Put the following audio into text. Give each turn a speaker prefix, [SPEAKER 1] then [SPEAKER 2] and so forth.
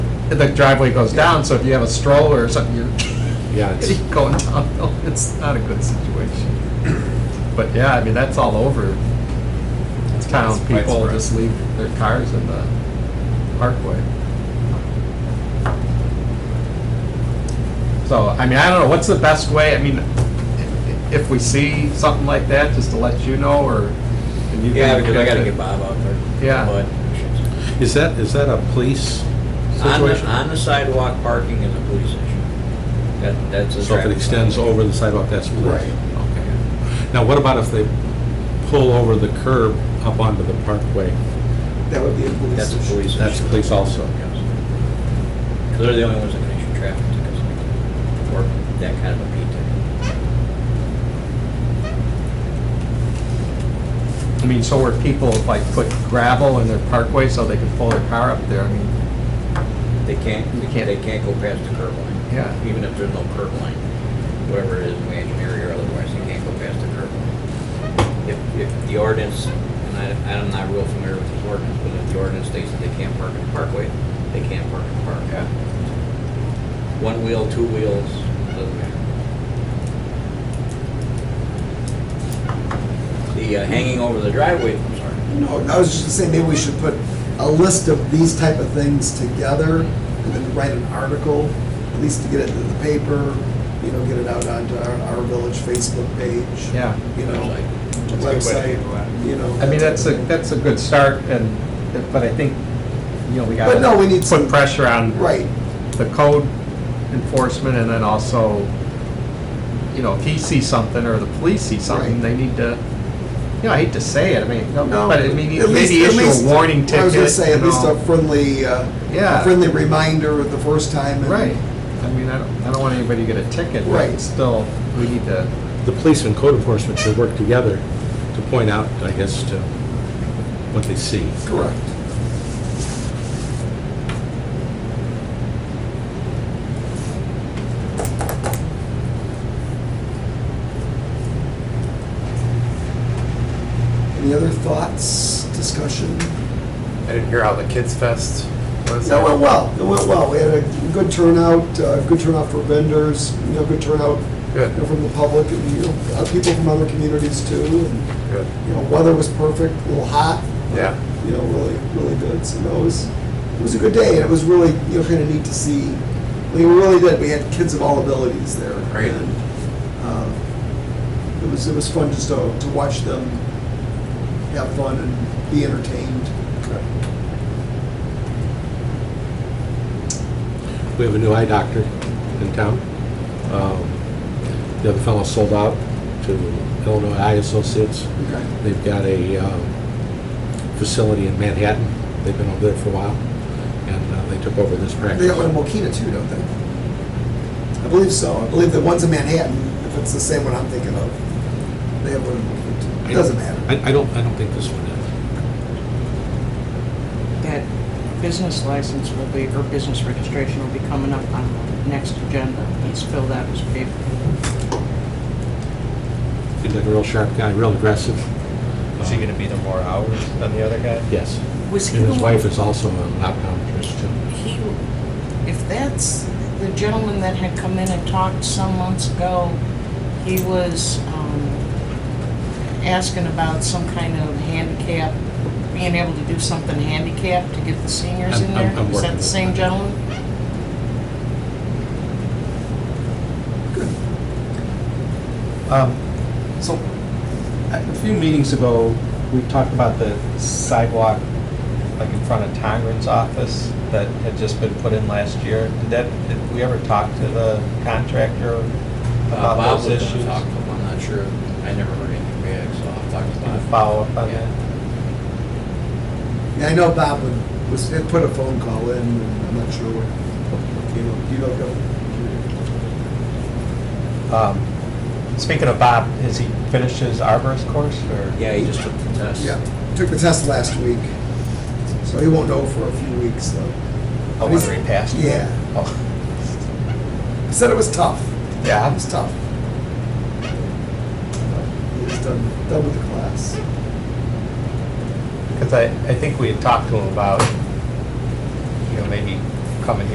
[SPEAKER 1] the driveway goes down, so if you have a stroller or something, you're
[SPEAKER 2] Yeah, it's,
[SPEAKER 1] going downhill. It's not a good situation. But yeah, I mean, that's all over town.
[SPEAKER 2] It's
[SPEAKER 1] People
[SPEAKER 2] widespread.
[SPEAKER 1] just leave their cars in the parkway. So, I mean, I don't know, what's the best way? I mean, i- if we see something like that, just to let you know, or? and you
[SPEAKER 3] Yeah,
[SPEAKER 1] can
[SPEAKER 3] because I gotta
[SPEAKER 1] it-
[SPEAKER 3] get Bob out there.
[SPEAKER 1] Yeah.
[SPEAKER 3] But
[SPEAKER 4] Is that, is that a police
[SPEAKER 3] On the,
[SPEAKER 4] situation?
[SPEAKER 3] on the sidewalk, parking is a police issue. That, that's a.
[SPEAKER 4] So if it
[SPEAKER 3] traffic
[SPEAKER 4] extends
[SPEAKER 3] violation.
[SPEAKER 4] over the sidewalk, that's police?
[SPEAKER 1] Okay.
[SPEAKER 4] Now, what about if they pull over the curb up onto the parkway?
[SPEAKER 5] That would be a police
[SPEAKER 3] That's a
[SPEAKER 5] issue.
[SPEAKER 3] police issue.
[SPEAKER 4] That's police also.
[SPEAKER 3] Because they're the only ones that can issue traffic tickets, like, or that kind of a P ticket.
[SPEAKER 1] I mean, so where people like put gravel in their parkway so they can pull their car up there, I mean,
[SPEAKER 3] They can't,
[SPEAKER 1] You can't-
[SPEAKER 3] they can't go past the curb line.
[SPEAKER 1] Yeah.
[SPEAKER 3] Even if there's no curb line, whatever it is, imaginary or otherwise, they can't go past the curb line. If, if the ordinance, and I, I'm not real familiar with this ordinance, but if the ordinance states that they can't park in the parkway, they can't park in the park.
[SPEAKER 1] yeah.
[SPEAKER 3] One wheel, two wheels, doesn't matter. The uh, hanging over the driveway, I'm sorry.
[SPEAKER 5] No, I was just saying, maybe we should put a list of these type of things together and then write an article, at least to get it in the paper, you know, get it out onto our, our village Facebook page.
[SPEAKER 1] Yeah.
[SPEAKER 5] You know,
[SPEAKER 2] That's a good way
[SPEAKER 5] website,
[SPEAKER 2] to handle that.
[SPEAKER 5] you know.
[SPEAKER 1] I mean, that's a, that's a good start, and, but I think, you know, we gotta.
[SPEAKER 5] But no, we need some-
[SPEAKER 1] Put pressure on.
[SPEAKER 5] Right,
[SPEAKER 1] The code enforcement, and then also, you know, if he sees something, or the police see something,
[SPEAKER 5] Right.
[SPEAKER 1] they need to, you know, I hate to say it, I mean, no,
[SPEAKER 5] no.
[SPEAKER 1] but I mean,
[SPEAKER 5] at
[SPEAKER 1] maybe
[SPEAKER 5] least- at
[SPEAKER 1] issue
[SPEAKER 5] least-
[SPEAKER 1] a warning ticket.
[SPEAKER 5] I was gonna say, at
[SPEAKER 1] you
[SPEAKER 5] least
[SPEAKER 1] know.
[SPEAKER 5] a friendly, uh,
[SPEAKER 1] Yeah.
[SPEAKER 5] a friendly reminder the first time. and-
[SPEAKER 1] Right, I mean, I don't, I don't want anybody to get a ticket, but
[SPEAKER 5] Right.
[SPEAKER 1] still, we need to.
[SPEAKER 4] The police and code enforcement should work together to point out, I guess, to what they see.
[SPEAKER 5] Correct. Any other thoughts, discussion?
[SPEAKER 2] I didn't hear how the Kids Fest was.
[SPEAKER 5] That went well, it went well. We had a good turnout, uh, good turnout for vendors, you know, good turnout you know,
[SPEAKER 2] Good,
[SPEAKER 5] from the public, and, you know, uh, people from other communities too. And
[SPEAKER 2] good,
[SPEAKER 5] You know, weather was perfect, a little hot,
[SPEAKER 2] yeah.
[SPEAKER 5] you know, really, really good. So no, it was, it was a good day, and it was really, you know, kind of neat to see. I mean, we really did. We had kids of all abilities there.
[SPEAKER 2] Great.
[SPEAKER 5] And, um, it was, it was fun just to, to watch them have fun and be entertained.
[SPEAKER 4] We have a new eye doctor in town. Um, The other fellow sold out to Illinois Eye Associates.
[SPEAKER 5] Okay.
[SPEAKER 4] They've got a um, facility in Manhattan. They've been over there for a while, and uh, they took over this
[SPEAKER 5] They got one in
[SPEAKER 4] practice.
[SPEAKER 5] Mokina too, don't they? I believe so. I believe the one's in Manhattan, if it's the same one I'm thinking of. They have one in Mokina too. It doesn't matter.
[SPEAKER 4] I I don't, I don't think this one is.
[SPEAKER 6] that business license will be, or business registration will be coming up on the next agenda. Let's fill that as paper.
[SPEAKER 4] He's like a real sharp guy, real aggressive.
[SPEAKER 2] Is he gonna be there more hours than the other guy?
[SPEAKER 4] Yes.
[SPEAKER 6] Was he
[SPEAKER 4] And
[SPEAKER 6] the
[SPEAKER 4] his
[SPEAKER 6] one-
[SPEAKER 4] wife is also an optometrist, too.
[SPEAKER 6] He, if that's the gentleman that had come in and talked some months ago, he was um, asking about some kind of handicap, being able to do something handicapped to get the seniors in
[SPEAKER 4] I'm- I'm-
[SPEAKER 6] there.
[SPEAKER 4] I'm
[SPEAKER 6] Is
[SPEAKER 4] working
[SPEAKER 6] that the
[SPEAKER 4] with
[SPEAKER 6] same
[SPEAKER 4] that.
[SPEAKER 6] gentleman?
[SPEAKER 7] Um, So, a few meetings ago, we talked about the sidewalk, like in front of Tongren's office, that had just been put in last year. Did that, did we ever talk to the contractor
[SPEAKER 3] Uh,
[SPEAKER 7] about
[SPEAKER 3] Bob
[SPEAKER 7] those
[SPEAKER 3] was
[SPEAKER 7] issues?
[SPEAKER 3] gonna talk to him, I'm not sure. I never heard anything back, so I'll talk to
[SPEAKER 7] Can you
[SPEAKER 3] Bob.
[SPEAKER 7] Follow up on
[SPEAKER 3] Yeah.
[SPEAKER 7] that?
[SPEAKER 5] Yeah, I know Bob would- was, had put a phone call in, and I'm not sure what, you know, do you know, Bill?
[SPEAKER 7] Um, Speaking of Bob, has he finished his arborist course, or?
[SPEAKER 3] Yeah, he just took the test.
[SPEAKER 5] Yeah, took the test last week, so he won't know for a few weeks, though.
[SPEAKER 7] Oh, whether he passed?
[SPEAKER 5] Yeah.
[SPEAKER 7] Oh,
[SPEAKER 5] He said it was tough. It
[SPEAKER 7] Yeah,
[SPEAKER 5] was tough. He was done, done with the class.
[SPEAKER 7] because I, I think we had talked to him about, you know, maybe coming here